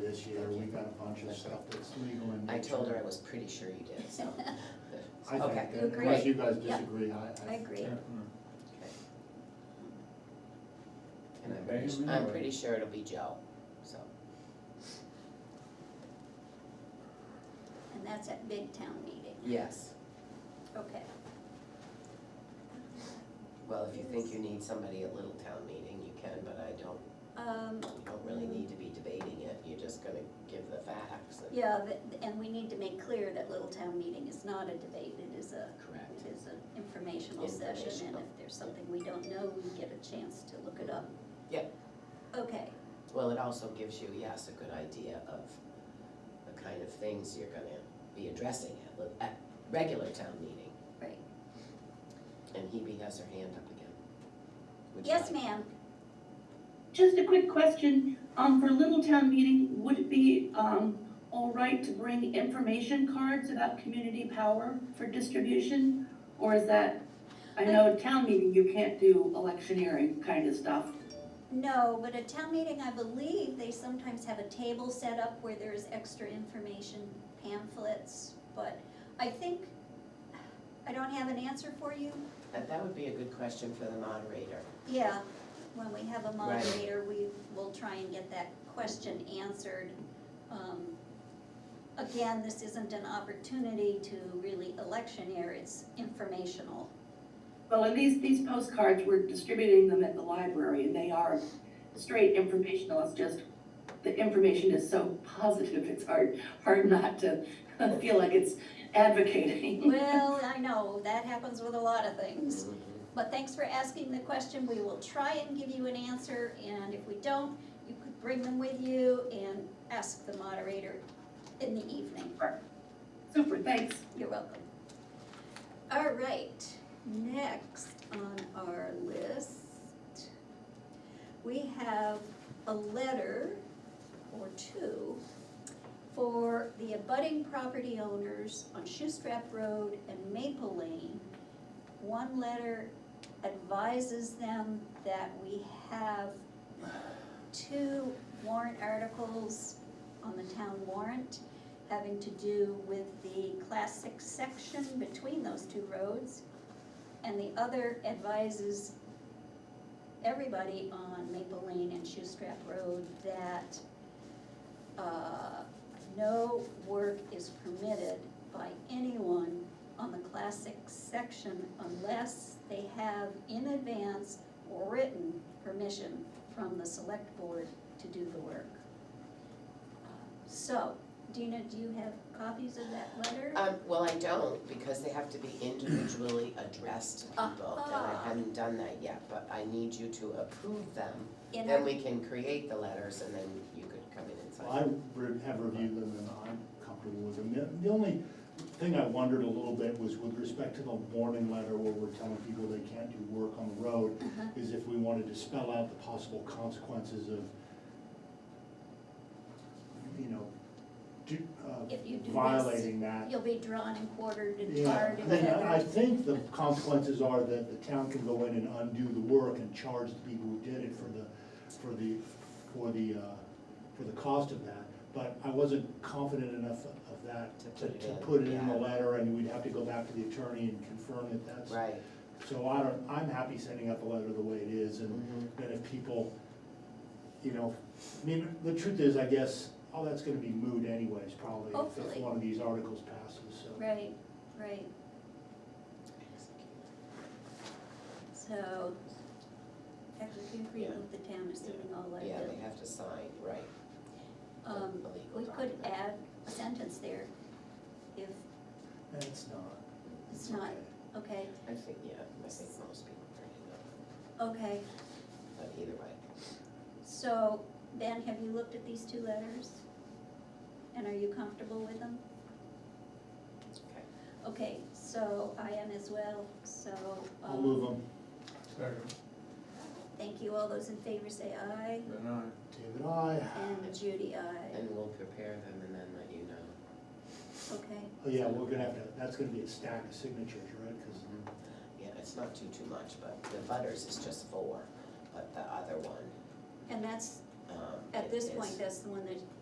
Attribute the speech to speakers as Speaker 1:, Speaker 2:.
Speaker 1: this year, we got a bunch of stuff that's legal and.
Speaker 2: I told her I was pretty sure you did, so.
Speaker 1: I think
Speaker 2: Okay.
Speaker 1: that, unless
Speaker 2: Great.
Speaker 1: you guys
Speaker 3: Yeah.
Speaker 1: disagree, I, I.
Speaker 3: I agree.
Speaker 2: And I'm pretty, su- I'm pretty sure it'll be Joe, so.
Speaker 3: And that's at big town meeting,
Speaker 2: Yes,
Speaker 3: okay.
Speaker 2: well, if you think you need somebody at Little Town Meeting, you can, but I don't,
Speaker 3: Um,
Speaker 2: you don't really need to be debating it. You're just gonna give the facts. and-
Speaker 3: yeah, th- and we need to make clear that Little Town Meeting is not a debate, it is a,
Speaker 2: Correct.
Speaker 3: it is an informational session, and
Speaker 2: Informational.
Speaker 3: if there's something we don't know, we get a chance to look it up.
Speaker 2: Yep.
Speaker 3: Okay,
Speaker 2: Well, it also gives you, yes, a good idea of the kind of things you're gonna be addressing at, li- at regular town meeting.
Speaker 3: right.
Speaker 2: And Hebe has her hand up again. Would you
Speaker 3: Yes,
Speaker 2: like-
Speaker 3: ma'am,
Speaker 4: Just a quick question, um, for Little Town Meeting, would it be, um, all right to bring information cards about community power for distribution? Or is that, I know at town meeting, you can't do electioneering kind of stuff.
Speaker 3: no, but at town meeting, I believe they sometimes have a table set up where there's extra information pamphlets, but I think, I don't have an answer for you,
Speaker 2: That, that would be a good question for the moderator.
Speaker 3: Yeah, when we have a
Speaker 2: Right.
Speaker 3: moderator, we will try and get that question answered. Um, Again, this isn't an opportunity to really electioneer, it's informational.
Speaker 4: Well, and these, these postcards, we're distributing them at the library, and they are straight informational, it's just, the information is so positive, it's hard, hard not to feel like it's advocating.
Speaker 3: Well, I know, that happens with a lot of
Speaker 2: Mm-hmm.
Speaker 3: things. But thanks for asking the question, we will try and give you an answer, and if we don't, you could bring them with you and ask the moderator in the evening.
Speaker 4: Super, thanks.
Speaker 3: You're welcome. All right, next on our list, we have a letter or two for the abutting property owners on Shoestrap Road and Maple Lane. One letter advises them that we have two warrant articles on the town warrant having to do with the classic section between those two roads. And the other advises everybody on Maple Lane and Shoestrap Road that uh, no work is permitted by anyone on the classic section unless they have in advance or written permission from the select board to do the work. Uh, So, Dina, do you have copies of that letter?
Speaker 2: Um, well, I don't, because they have to be individually addressed to people, and I
Speaker 3: Ah.
Speaker 2: haven't done that yet, but I need you to approve them.
Speaker 3: In
Speaker 2: Then
Speaker 3: our,
Speaker 2: we can create the letters, and then you could come in and
Speaker 1: I
Speaker 2: sign.
Speaker 1: re- have reviewed them and I'm comfortable with them. The- The only thing I wondered a little bit was with respect to the warning letter where we're telling people they can't do work on the road,
Speaker 3: Uh-huh.
Speaker 1: is if we wanted to spell out the possible consequences of, you know, do, uh,
Speaker 3: if you do this,
Speaker 1: violating that.
Speaker 3: you'll be drawn and quartered and
Speaker 1: Yeah,
Speaker 3: tarred and
Speaker 1: and I I
Speaker 3: feathered.
Speaker 1: think the consequences are that the town can go in and undo the work and charge the people who did it for the, for the, for the, uh, for the cost of that. But I wasn't confident enough of that to,
Speaker 2: To put it
Speaker 1: to
Speaker 2: in,
Speaker 1: put it in the
Speaker 2: yeah.
Speaker 1: letter, and we'd have to go back to the attorney and confirm that that's.
Speaker 2: Right.
Speaker 1: So I don't, I'm happy sending out the letter the way it is, and
Speaker 2: Mhm.
Speaker 1: then if people, you know, I mean, the truth is, I guess, all that's gonna be moot anyways, probably, if- if
Speaker 3: Hopefully.
Speaker 1: one of these articles passes, so.
Speaker 3: Right, right, so, technically agreement with the town is doing all like
Speaker 2: Yeah, they
Speaker 3: that.
Speaker 2: have to sign, right. the-
Speaker 3: Um,
Speaker 2: the legal
Speaker 3: we could
Speaker 2: document.
Speaker 3: add a sentence there if
Speaker 1: That's not.
Speaker 3: it's not,
Speaker 1: okay.
Speaker 3: okay,
Speaker 2: I think, yeah, I think most people are in it,
Speaker 3: okay.
Speaker 2: but either way.
Speaker 3: So, Ben, have you looked at these two letters? And are you comfortable with them?
Speaker 2: Okay.
Speaker 3: Okay, so I am as well, so.
Speaker 1: I'll
Speaker 3: um,
Speaker 1: move them.
Speaker 5: Second.
Speaker 3: Thank you, all those in favor say aye,
Speaker 5: Then I.
Speaker 1: David, I,
Speaker 3: and Judy, aye,
Speaker 2: And we'll prepare them and then let you know.
Speaker 3: okay,
Speaker 1: oh yeah, we're gonna have to, that's gonna be a stack of signatures, right? Cause
Speaker 2: Yeah, it's not too, too much, but the butters is just four, but the other one,
Speaker 3: and that's,
Speaker 2: um.
Speaker 3: at
Speaker 2: it
Speaker 3: this
Speaker 2: is-
Speaker 3: point, that's the one that